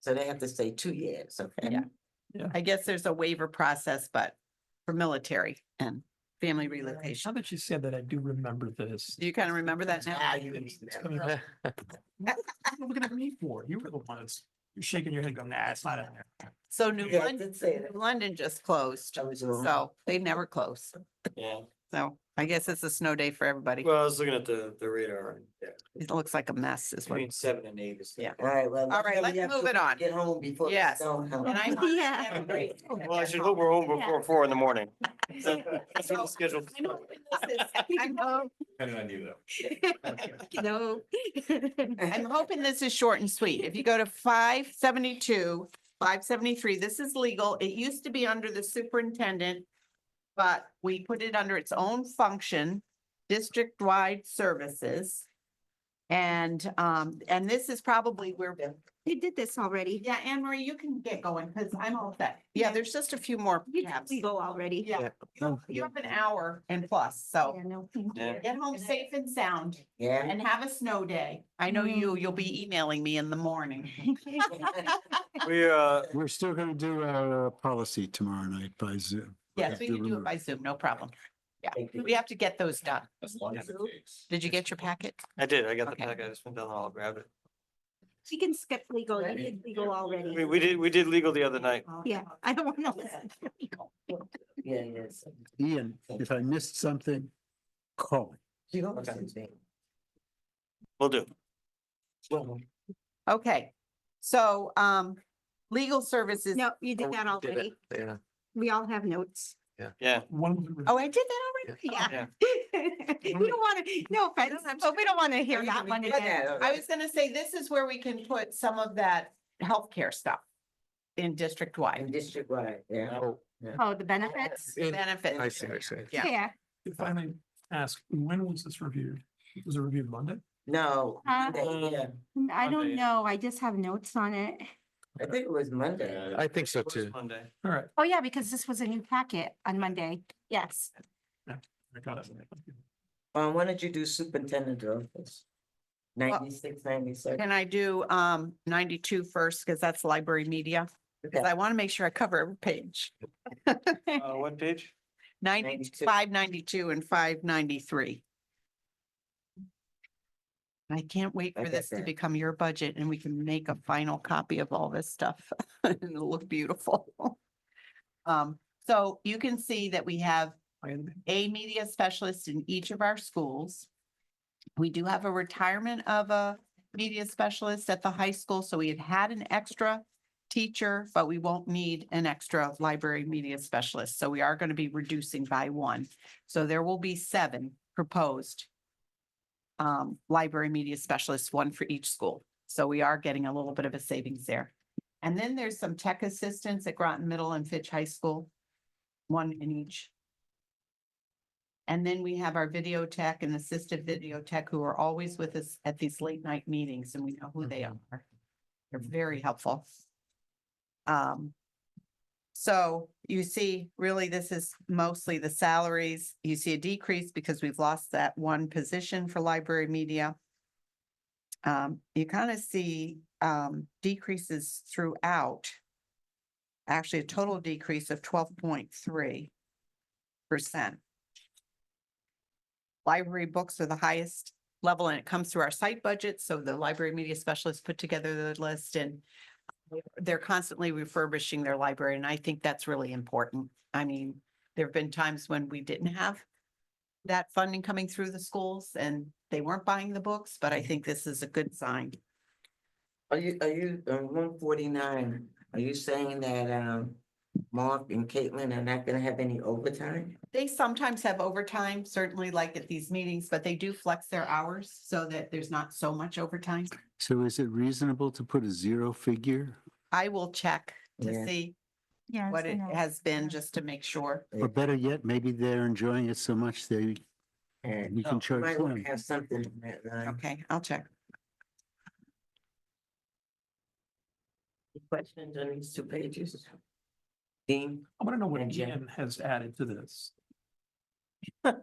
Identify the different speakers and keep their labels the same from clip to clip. Speaker 1: So they have to stay two years, okay?
Speaker 2: Yeah. I guess there's a waiver process, but for military and family relocation.
Speaker 3: Now that you said that, I do remember this.
Speaker 2: Do you kind of remember that now?
Speaker 1: Ah,
Speaker 3: Now
Speaker 1: you
Speaker 3: it's-
Speaker 1: mean
Speaker 3: it's
Speaker 1: that.
Speaker 3: coming back. What are you Looking at me for, you were the ones, you're shaking your head going, nah, it's not in there.
Speaker 2: So New
Speaker 1: Yeah, I
Speaker 2: London,
Speaker 1: did say that. Uh-huh.
Speaker 2: London just closed,
Speaker 1: That was wrong.
Speaker 2: so they never close.
Speaker 4: Yeah,
Speaker 2: So I guess it's a snow day for everybody.
Speaker 4: well, I was looking at the, the radar, and, yeah,
Speaker 2: It looks like a mess is what.
Speaker 4: between seven and eight is.
Speaker 2: Yeah.
Speaker 1: All right, well.
Speaker 2: All right, let's move it on.
Speaker 1: Get home before. the
Speaker 2: Yes.
Speaker 1: snow comes.
Speaker 2: And I'm on every-
Speaker 4: Well, I should hope we're home before four in the morning. That's what the schedule.
Speaker 2: I know when this is. I know.
Speaker 5: No.
Speaker 2: I'm hoping this is short and sweet. If you go to five seventy-two, five seventy-three, this is legal. It used to be under the superintendent. But we put it under its own function, district-wide services. And, um, and this is probably where,
Speaker 5: You did this already.
Speaker 2: yeah, Anne Marie, you can get going because I'm all set. Yeah, there's just a few more
Speaker 5: You did
Speaker 2: tabs.
Speaker 5: legal already.
Speaker 2: Yeah, you have an hour and plus, so
Speaker 5: Yeah, no.
Speaker 4: Yeah.
Speaker 2: get home safe and sound
Speaker 1: Yeah.
Speaker 2: and have a snow day. Mm. I know you, you'll be emailing me in the morning.
Speaker 4: We, uh,
Speaker 6: We're still going to do our uh, policy tomorrow night by Zoom.
Speaker 2: Yes, we can do it by Zoom, no problem.
Speaker 1: Thank you.
Speaker 2: We have to get those done.
Speaker 7: As long as it takes.
Speaker 2: Did you get your packet?
Speaker 4: I did, I got the
Speaker 2: Okay.
Speaker 4: packet, I just went down the hall, grabbed it.
Speaker 5: She can skip legal. You did legal already.
Speaker 4: We, we did, we did legal the other night.
Speaker 5: Yeah, I don't want to listen to legal.
Speaker 1: Yeah, yes.
Speaker 6: Ian, if I missed something, call me.
Speaker 1: You don't
Speaker 4: Okay.
Speaker 1: see me.
Speaker 4: We'll do.
Speaker 2: Okay, so, um, legal services.
Speaker 5: No, you
Speaker 4: Oh,
Speaker 5: did that already. We all have notes.
Speaker 4: Yeah,
Speaker 3: One.
Speaker 2: Oh, I did that already?
Speaker 5: Yeah. We don't want to, no offense, but we don't want to hear
Speaker 1: We
Speaker 5: that
Speaker 1: can
Speaker 5: one
Speaker 1: ignore
Speaker 5: again.
Speaker 1: that.
Speaker 2: I was gonna say, this is where we can put some of that healthcare stuff in district
Speaker 1: In
Speaker 2: wide
Speaker 1: district wide, yeah.
Speaker 5: Oh, the benefits?
Speaker 2: benefits.
Speaker 1: I see, I
Speaker 7: see.
Speaker 2: Yeah.
Speaker 5: Yeah.
Speaker 3: If I may ask, when was this reviewed? Was it reviewed Monday?
Speaker 1: No. uh,
Speaker 5: Huh?
Speaker 1: Monday, yeah.
Speaker 5: I
Speaker 4: Monday.
Speaker 5: don't know. I just have notes on it.
Speaker 1: I think it was Monday.
Speaker 7: I think so
Speaker 4: it was Monday.
Speaker 3: All right,
Speaker 5: Oh, yeah, because this was a new packet on Monday. Yes.
Speaker 3: I got it.
Speaker 1: Um, why don't you do superintendent of office? Ninety-six, ninety-seven.
Speaker 2: Can I do, um, 92 first Cause that's library media. Cause I wanna make sure I cover every page.
Speaker 4: Uh, what page?
Speaker 2: 92,
Speaker 1: 92.
Speaker 2: 592 and 593. I can't wait
Speaker 1: I
Speaker 2: for
Speaker 1: get
Speaker 2: this to
Speaker 1: that.
Speaker 2: become your budget and we can make a final copy of all this stuff and it'll look beautiful. Um, so you can see that we have
Speaker 3: I
Speaker 2: a media specialist in each of our schools. We do have a retirement of a media specialist at the high school, so we had had an extra teacher, but we won't need an extra library media specialist. So we are going to be reducing by one. So there will be seven proposed um, library media specialists, one for each school. So we are getting a little bit of a savings there. And then there's some tech assistants at Groton Middle and Fitch High School, one in each. And then we have our video tech and assistive video tech who are always with us at these late night meetings and we know who they are. They're very helpful. Um, so you see, really, this is mostly the salaries. You see a decrease because we've lost that one position for library media. Um, you kind of see, um, decreases throughout. Actually, a total decrease of twelve point three percent. Library books are the highest level and it comes through our site budget. So the library media specialists put together the list and they're constantly refurbishing their library and I think that's really important. I mean, there have been times when we didn't have that funding coming through the schools and they weren't buying the books, but I think this is a good sign.
Speaker 1: Are you, are you, uh, one forty-nine, are you saying that, um, Mark and Caitlin are not gonna have any overtime?
Speaker 2: They sometimes have overtime, certainly like at these meetings, but they do flex their hours so that there's not so much overtime.
Speaker 6: So is it reasonable to put a zero figure
Speaker 2: I will check to
Speaker 1: Yeah.
Speaker 2: see
Speaker 5: Yeah.
Speaker 2: what it has been just to make sure.
Speaker 6: or better yet, maybe they're enjoying it so much they,
Speaker 1: And
Speaker 2: Oh,
Speaker 6: we can charge
Speaker 1: might wanna
Speaker 6: them.
Speaker 1: have something in that line.
Speaker 2: Okay, I'll check.
Speaker 1: Any Questions on these two pages? Dean?
Speaker 3: I want to know what
Speaker 1: And Jen.
Speaker 3: Ian has added to this.
Speaker 2: What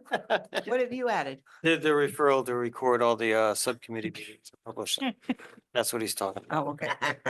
Speaker 2: have you added?
Speaker 4: Did the referral to record all the, uh, subcommittee meetings and publish. them. That's what he's talking about.
Speaker 2: Oh, okay.